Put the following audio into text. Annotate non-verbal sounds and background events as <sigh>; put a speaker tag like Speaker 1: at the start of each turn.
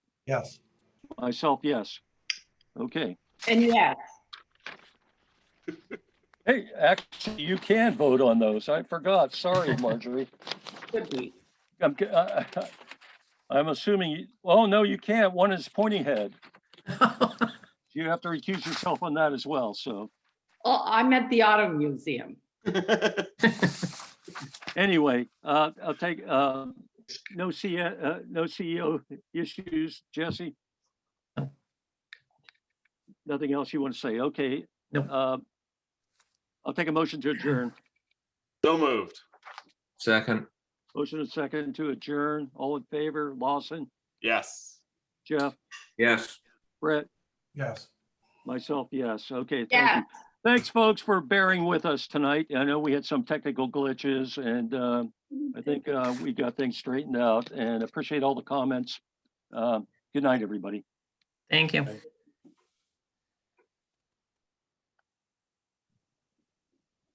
Speaker 1: Yes.
Speaker 2: Myself, yes. Okay.
Speaker 3: And yes,
Speaker 2: Hey, actually, you can vote on those. I forgot. <laughs> Sorry, Marjorie.
Speaker 3: could be.
Speaker 2: I'm, g- I- I- <laughs> I'm assuming, you- oh, no, you can't. One is pointing <laughs> head. You have to recuse yourself on that as well, so.
Speaker 3: Oh, I'm at the Auto Museum.
Speaker 2: Anyway, uh, I'll take, uh, no C, uh, no CEO issues, Jesse?
Speaker 4: No.
Speaker 2: Nothing else you want to say? Okay.
Speaker 4: No.
Speaker 2: Uh, I'll take a motion to adjourn.
Speaker 5: So moved.
Speaker 6: Second,
Speaker 2: Motion and second to adjourn. All in favor, Lawson,
Speaker 5: Yes.
Speaker 2: Jeff,
Speaker 6: yes.
Speaker 2: Brett,
Speaker 1: Yes.
Speaker 2: myself, yes. Okay, thank
Speaker 3: Yeah,
Speaker 2: you. Thanks, folks, for bearing with us tonight. I know we had some technical glitches and, um, I think uh, we got things straightened out and appreciate all the comments. Uh, Good night, everybody.
Speaker 4: Thank you.
Speaker 1: Thank